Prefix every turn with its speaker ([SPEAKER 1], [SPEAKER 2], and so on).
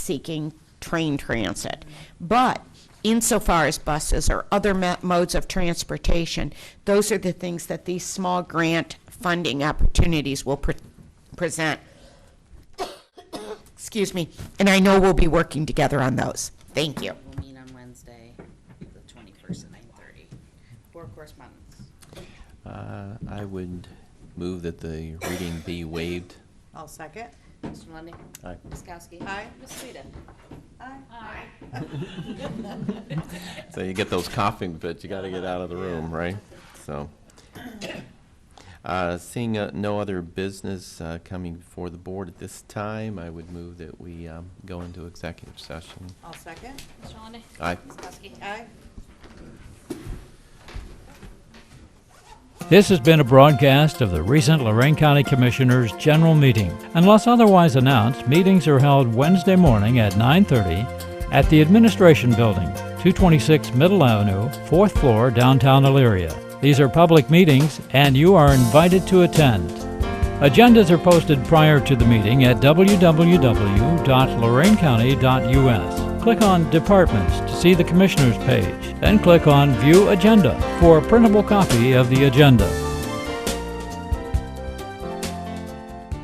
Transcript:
[SPEAKER 1] seeking train transit. But insofar as buses or other ma- modes of transportation, those are the things that these small grant funding opportunities will pre- present. Excuse me, and I know we'll be working together on those. Thank you.
[SPEAKER 2] We'll meet on Wednesday, the twenty-first at nine-thirty. For correspondence.
[SPEAKER 3] Uh, I would move that the reading be waived.
[SPEAKER 4] I'll second.
[SPEAKER 2] Mr. Lundey?
[SPEAKER 3] Aye.
[SPEAKER 2] Ms. Kowski?
[SPEAKER 4] Aye.
[SPEAKER 2] Ms. Sueda?
[SPEAKER 4] Aye.
[SPEAKER 3] So you get those coughing fits, you gotta get out of the room, right? So. Uh, Seeing uh, no other business uh, coming before the board at this time, I would move that we um, go into executive session.
[SPEAKER 4] I'll second.
[SPEAKER 5] Mr. Lundey.
[SPEAKER 3] Aye.
[SPEAKER 5] Ms. Kowski.
[SPEAKER 4] Aye.
[SPEAKER 6] This has been a broadcast of the recent Lorraine County Commissioners' General Meeting. Unless otherwise announced, meetings are held Wednesday morning at 9:30 at the Administration Building, 226 Middle Avenue, 4th floor, downtown Elyria. These are public meetings, and you are invited to attend. Agendas are posted prior to the meeting at www.lorainecounty.us. Click on Departments to see the Commissioners page, then click on View Agenda for a printable copy of the agenda.